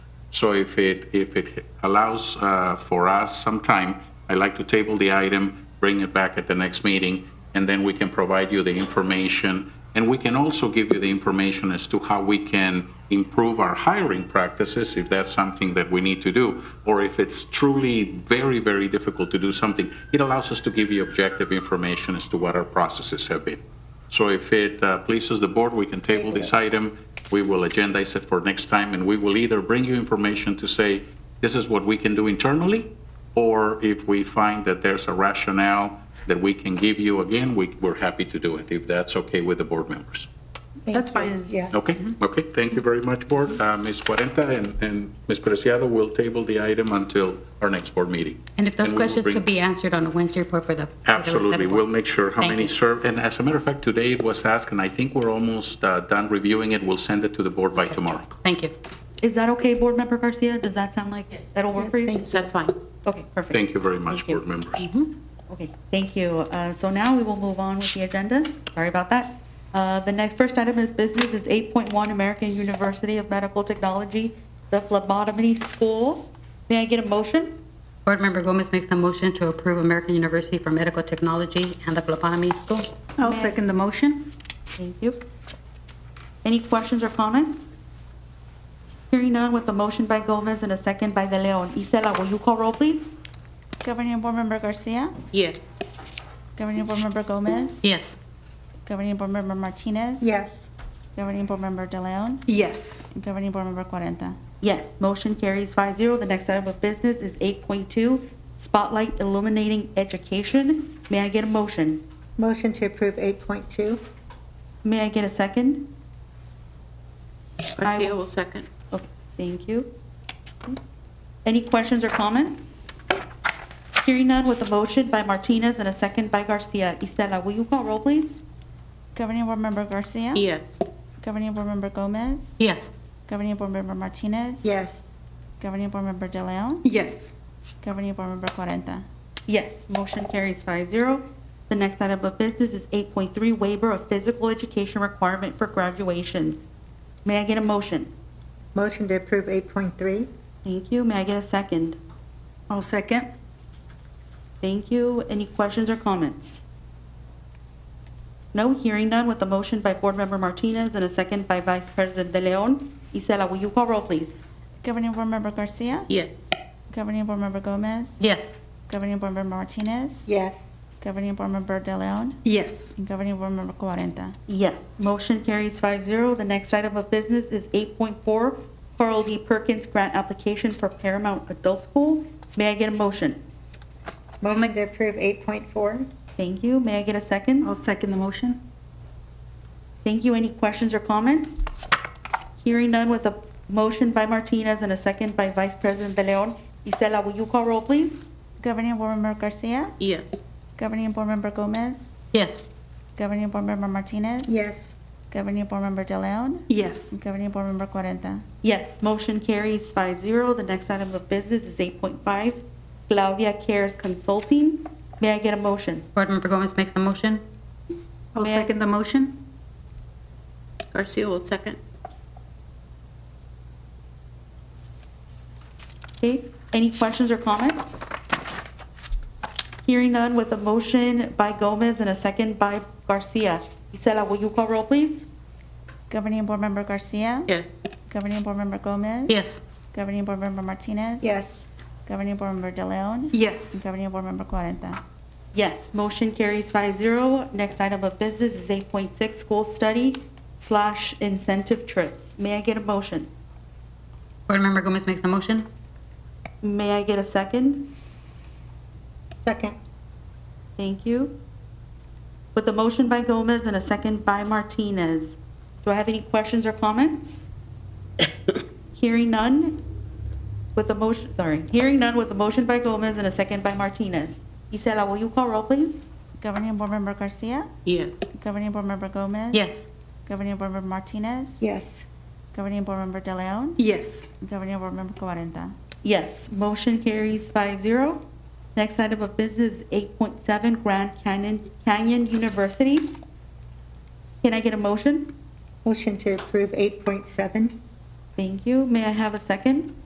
So if it, if it allows uh, for us some time, I'd like to table the item, bring it back at the next meeting, and then we can provide you the information. And we can also give you the information as to how we can improve our hiring practices, if that's something that we need to do, or if it's truly very, very difficult to do something. It allows us to give you objective information as to what our processes have been. So if it uh, pleases the board, we can table this item. We will agendize it for next time, and we will either bring you information to say, this is what we can do internally, or if we find that there's a rationale that we can give you again, we, we're happy to do it, if that's okay with the board members. That's fine. Yeah. Okay, okay, thank you very much, board. Uh, Ms. Cuarenta and, and Ms. Preciado will table the item until our next board meeting. And if those we will questions bring- could be answered on a Wednesday report for the. for the rest of the Absolutely, board. we'll make sure how Thank many you. served, and as a matter of fact, today it was asked, and I think we're almost uh, done reviewing it, we'll send it to the board by tomorrow. Thank you. Is that okay, Board Member Garcia? Does that sound like that'll work for you? That's fine. Okay, perfect. Thank you very much, Thank you. board members. Okay, thank you. Uh, So now we will move on with the agenda. Sorry about that. Uh, The next, first item of business is 8.1 American University of Medical Technology, the phlebotomy school. May I get a motion? Board Member Gomez makes the motion to approve American University for Medical Technology and the phlebotomy school. I'll second the motion. Thank you. Any questions or comments? Hearing none with a motion by Gomez and a second by De Leon. Isela, will you call roll, please? Governing Board Member Garcia, Yes. Governing Board Member Gomez, Yes. Governing Board Member Martinez, Yes. Governing Board Member De Leon, Yes. and Governing Board Member Cuarenta. Yes, motion carries 5-0. The next item of business is 8.2, Spotlight Illuminating Education. May I get a motion? Motion to approve 8.2. May I get a second? Garcia will second. Okay, Thank you. Any questions or comments? Hearing none with a motion by Martinez and a second by Garcia. Isela, will you call roll, please? Governing Board Member Garcia, Yes. Governing Board Member Gomez, Yes. Governing Board Member Martinez, Yes. Governing Board Member De Leon, Yes. Governing Board Member Cuarenta. Yes, motion carries 5-0. The next item of business is 8.3, Waiver of Physical Education Requirement for Graduation. May I get a motion? Motion to approve 8.3. Thank you. May I get a second? I'll second. Thank you. Any questions or comments? No, hearing none with a motion by Board Member Martinez and a second by Vice President De Leon. Isela, will you call roll, please? Governing Board Member Garcia, Yes. Governing Board Member Gomez, Yes. Governing Board Member Martinez, Yes. Governing Board Member De Leon, Yes. and Governing Board Member Cuarenta. Yes. Motion carries 5-0. The next item of business is 8.4, Carl D. Perkins Grant Application for Paramount Adult School. May I get a motion? Motion to approve 8.4. Thank you. May I get a second? I'll second the motion. Thank you. Any questions or comments? Hearing none with a motion by Martinez and a second by Vice President De Leon. Isela, will you call roll, please? Governing Board Member Garcia, Yes. Governing Board Member Gomez, Yes. Governing Board Member Martinez, Yes. Governing Board Member De Leon, Yes. Governing Board Member Cuarenta. Yes, motion carries 5-0. The next item of business is 8.5, Claudia Cares Consulting. May I get a motion? Board Member Gomez makes the motion. I'll May I- second the motion. Garcia will second. Okay, any questions or comments? Hearing none with a motion by Gomez and a second by Garcia. Isela, will you call roll, please? Governing Board Member Garcia, Yes. Governing Board Member Gomez, Yes. Governing Board Member Martinez, Yes. Governing Board Member De Leon, and Yes. Governing Board Member Cuarenta. Yes, motion carries 5-0. Next item of business is 8.6, School Study slash Incentive Trips. May I get a motion? Board Member Gomez makes the motion. May I get a second? Second. Thank you. With a motion by Gomez and a second by Martinez, do I have any questions or comments? Hearing none with a motion, sorry, hearing none with a motion by Gomez and a second by Martinez. Isela, will you call roll, please? Governing Board Member Garcia, Yes. Governing Board Member Gomez, Yes. Governing Board Member Martinez, Yes. Governing Board Member De Leon, Yes. and Governing Board Member Cuarenta. Yes, motion carries 5-0. Next item of business, 8.7 Grand Canyon, Canyon University. Can I get a motion? Motion to approve 8.7. Thank you. May I have a second?